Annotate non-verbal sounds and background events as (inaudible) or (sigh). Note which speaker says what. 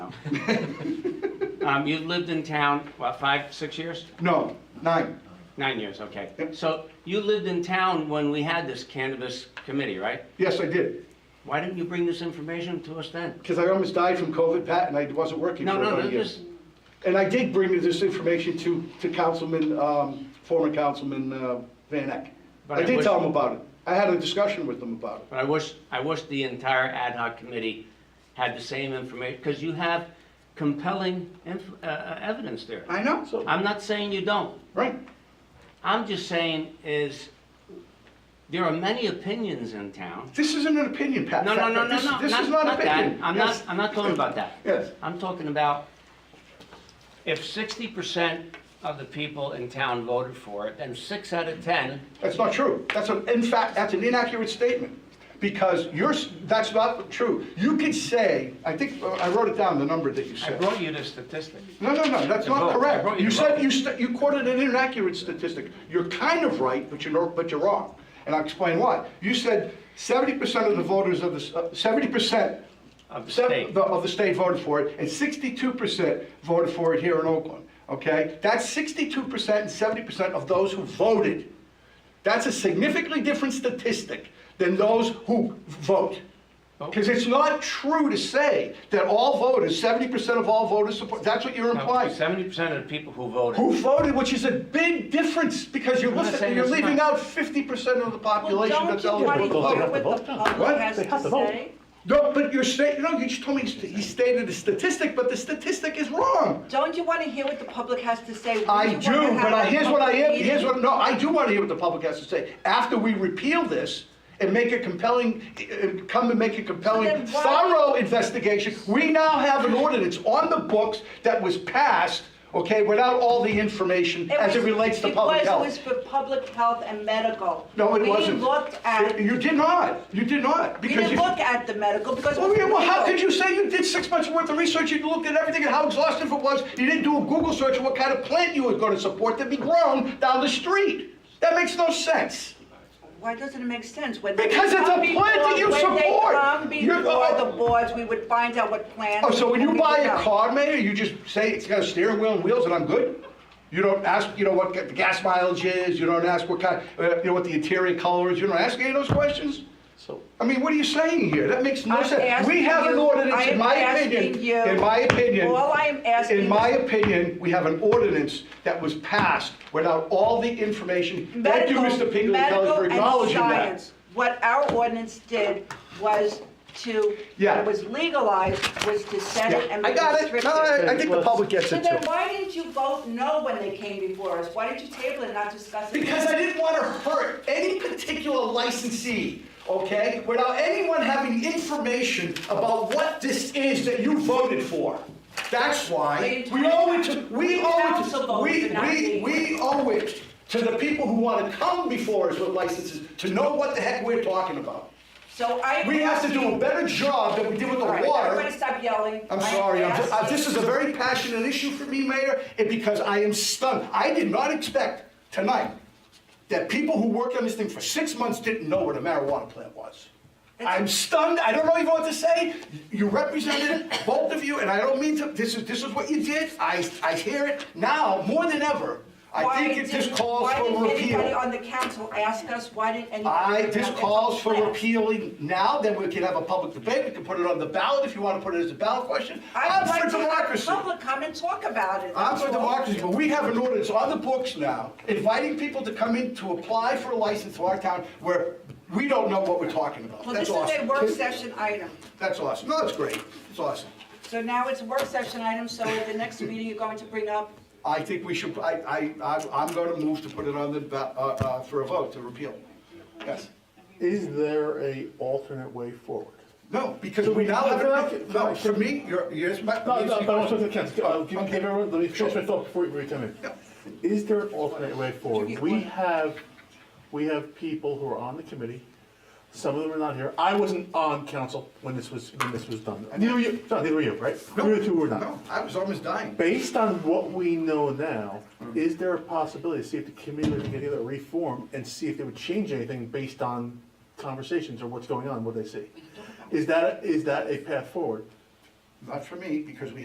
Speaker 1: town. (laughs) Um, You've lived in town, what, five, six years?
Speaker 2: No, nine.
Speaker 1: Nine years, okay.
Speaker 2: Yep.
Speaker 1: So you lived in town when we had this cannabis committee, right?
Speaker 2: Yes, I did,
Speaker 1: Why didn't you bring this information to us then?
Speaker 2: because I almost died from COVID, Pat, and I wasn't working for
Speaker 1: No, no,
Speaker 2: about
Speaker 1: no,
Speaker 2: a year.
Speaker 1: this,
Speaker 2: And I did bring this information to, to Councilman, um, former Councilman uh, Van Eck.
Speaker 1: But
Speaker 2: I
Speaker 1: I
Speaker 2: did
Speaker 1: wish-
Speaker 2: tell him about it. I had a discussion with him about it.
Speaker 1: but I wish, I wish the entire ad hoc committee had the same information, because you have compelling inf- uh, uh, evidence there.
Speaker 2: I know, so,
Speaker 1: I'm not saying you don't.
Speaker 2: right,
Speaker 1: I'm just saying is, there are many opinions in town.
Speaker 2: this isn't an opinion, Pat.
Speaker 1: No, no, no, no,
Speaker 2: This-
Speaker 1: no.
Speaker 2: This is not an
Speaker 1: that.
Speaker 2: opinion.
Speaker 1: I'm
Speaker 2: Yes.
Speaker 1: not, I'm not talking about that.
Speaker 2: Yes.
Speaker 1: I'm talking about if sixty percent of the people in town voted for it, then six out of ten,
Speaker 2: That's not true. That's an, in fact, that's an inaccurate statement, because you're, s- that's not true. You could say, I think, uh, I wrote it down, the number that you
Speaker 1: I
Speaker 2: said.
Speaker 1: brought you the statistic.
Speaker 2: No, no, no, that's
Speaker 1: The vote.
Speaker 2: not
Speaker 1: I brought
Speaker 2: correct.
Speaker 1: you
Speaker 2: You
Speaker 1: the
Speaker 2: said,
Speaker 1: vote.
Speaker 2: you, st- you quoted an inaccurate statistic. You're kind of right, but you're, not- but you're wrong. And I'll explain why. You said seventy percent of the voters of the, uh, seventy percent
Speaker 1: Of the state.
Speaker 2: Of the state voted for it, and sixty-two percent voted for it here in Oakland, okay? That's sixty-two percent and seventy percent of those who voted. That's a significantly different statistic than those who vote.
Speaker 1: Oh.
Speaker 2: Because it's not true to say that all voters, seventy percent of all voters support, that's what you're implying.
Speaker 1: Seventy percent of the people who voted.
Speaker 2: Who voted, which is a big difference, because you're
Speaker 1: not
Speaker 2: listening,
Speaker 1: saying
Speaker 2: you're
Speaker 1: it's
Speaker 2: leaving
Speaker 1: not.
Speaker 2: out fifty percent of the
Speaker 3: Well,
Speaker 2: population
Speaker 3: don't
Speaker 2: that's
Speaker 3: you want to
Speaker 2: eligible to
Speaker 3: hear
Speaker 2: vote.
Speaker 3: what the
Speaker 2: What?
Speaker 3: public has
Speaker 2: They
Speaker 3: to say?
Speaker 2: No, but you're saying, no, you just told me, you stated a statistic, but the statistic is wrong.
Speaker 3: Don't you want to hear what the public has to say? Wouldn't
Speaker 2: I
Speaker 3: you
Speaker 2: do,
Speaker 3: wanna have
Speaker 2: but I,
Speaker 3: a
Speaker 2: here's what I
Speaker 3: public
Speaker 2: am,
Speaker 3: meeting?
Speaker 2: here's what, no, I do want to hear what the public has to say. After we repeal this and make a compelling, uh, come and make a compelling,
Speaker 3: then why-
Speaker 2: thorough investigation, we now have an ordinance on the books that was passed, okay, without all the information as it
Speaker 3: was-
Speaker 2: relates to public health.
Speaker 3: Because it was for public health and medical.
Speaker 2: No, it
Speaker 3: We
Speaker 2: wasn't.
Speaker 3: didn't look at,
Speaker 2: You did not, you did not,
Speaker 3: we
Speaker 2: because
Speaker 3: didn't
Speaker 2: you...
Speaker 3: look at the medical because. it
Speaker 2: Well,
Speaker 3: was
Speaker 2: yeah, well, how
Speaker 3: legal.
Speaker 2: could you say you did six months worth of research, you looked at everything and how exhaustive it was, you didn't do a Google search of what kind of plant you were gonna support to be grown down the street? That makes no sense.
Speaker 3: Why doesn't it make sense? When they
Speaker 2: Because it's a
Speaker 3: come
Speaker 2: plant that
Speaker 3: before-
Speaker 2: you support.
Speaker 3: When they
Speaker 2: You're-
Speaker 3: come before the boards, we would find out what plan.
Speaker 2: Oh, so when you
Speaker 3: we
Speaker 2: buy
Speaker 3: would
Speaker 2: a
Speaker 3: go.
Speaker 2: car, Mayor, you just say it's got a steering wheel and wheels and I'm good? You don't ask, you know, what the gas mileage is, you don't ask what kind, uh, you know, what the interior color is, you don't ask any of those questions?
Speaker 4: So,
Speaker 2: I mean, what are you saying here? That makes no
Speaker 3: I'm
Speaker 2: sense. We
Speaker 3: asking
Speaker 2: have an
Speaker 3: you-
Speaker 2: ordinance,
Speaker 3: I
Speaker 2: in
Speaker 3: am
Speaker 2: my
Speaker 3: asking
Speaker 2: opinion,
Speaker 3: you-
Speaker 2: in my opinion.
Speaker 3: All I am asking
Speaker 2: In
Speaker 3: is-
Speaker 2: my opinion, we have an ordinance that was passed without all the information. Thank you,
Speaker 3: Medical,
Speaker 2: Mr. Pinkley Kelly,
Speaker 3: medical
Speaker 2: for
Speaker 3: and
Speaker 2: acknowledging that.
Speaker 3: science. What our ordinance did was to, when
Speaker 2: Yeah.
Speaker 3: it was legalized, was to set it
Speaker 2: Yeah,
Speaker 3: and
Speaker 2: I got it.
Speaker 3: restrict
Speaker 2: No, I, I
Speaker 3: it.
Speaker 2: think the public gets
Speaker 3: So
Speaker 2: it
Speaker 3: then
Speaker 2: too.
Speaker 3: why didn't you vote no when they came before us? Why did you table it and not discuss it?
Speaker 2: Because I didn't want to hurt any particular licensee, okay? Without anyone having information about what this is that you voted for. That's why we owe it to, we owe it to, we, we, we owe it to the people who want to come before us with licenses to know what the heck we're talking about.
Speaker 3: So I am
Speaker 2: We have to do a
Speaker 3: asking-
Speaker 2: better job than we did with the
Speaker 3: All right,
Speaker 2: water.
Speaker 3: everybody stop yelling.
Speaker 2: I'm
Speaker 3: I am
Speaker 2: sorry, I'm, uh,
Speaker 3: asking-
Speaker 2: this is a very passionate issue for me, Mayor, and because I am stunned. I did not expect tonight that people who worked on this thing for six months didn't know what a marijuana plant was. I'm stunned, I don't know even what to say. You represented
Speaker 3: (laughs)
Speaker 2: it, both of you, and I don't mean to, this is, this is what you did. I, I hear it now, more than ever.
Speaker 3: Why
Speaker 2: I think it
Speaker 3: didn't-
Speaker 2: just calls for
Speaker 3: Why didn't anybody
Speaker 2: repeal.
Speaker 3: on the council ask us, why didn't anybody?
Speaker 2: I,
Speaker 3: bring
Speaker 2: this
Speaker 3: up their
Speaker 2: calls for
Speaker 3: plan?
Speaker 2: repealing now, then we can have a public debate, we can put it on the ballot if you want to put it as a ballot question.
Speaker 3: I
Speaker 2: I'm
Speaker 3: would like
Speaker 2: for
Speaker 3: to have the
Speaker 2: democracy.
Speaker 3: public come and talk about it.
Speaker 2: I'm
Speaker 3: that's
Speaker 2: for
Speaker 3: all.
Speaker 2: democracy, but we have an ordinance on the books now inviting people to come in to apply for a license to our town where we don't know what we're talking about.
Speaker 3: Well,
Speaker 2: That's
Speaker 3: this is a
Speaker 2: awesome.
Speaker 3: work session item.
Speaker 2: That's awesome. No, that's great. It's awesome.
Speaker 3: So now it's a work session item, so at the next meeting, you're going to bring up,
Speaker 2: I think we should, I, I, I'm- I'm going to move to put it on the, ba- uh, uh, for a vote to repeal. Yes.
Speaker 4: is there a alternate way forward?
Speaker 2: No, because we now have, a- no, for me, you're, yes, my.
Speaker 4: No, no, but I'm talking to Ken, Uh, give give everyone, let me finish my thought before you come in.
Speaker 2: Yeah.
Speaker 4: Is there an alternate way forward?
Speaker 3: Should we-
Speaker 4: We have, we have people who are on the committee, some of them are not here. I wasn't on council when this was, when this was done. Neither were you, no, neither were you, right?
Speaker 2: No,
Speaker 4: You two were
Speaker 2: No,
Speaker 4: not.
Speaker 2: I was almost dying.
Speaker 4: Based on what we know now, is there a possibility to see if the committee would get together, reform, and see if they would change anything based on conversations or what's going on, what they see? Is that, is that a path forward?
Speaker 2: Not for me, because we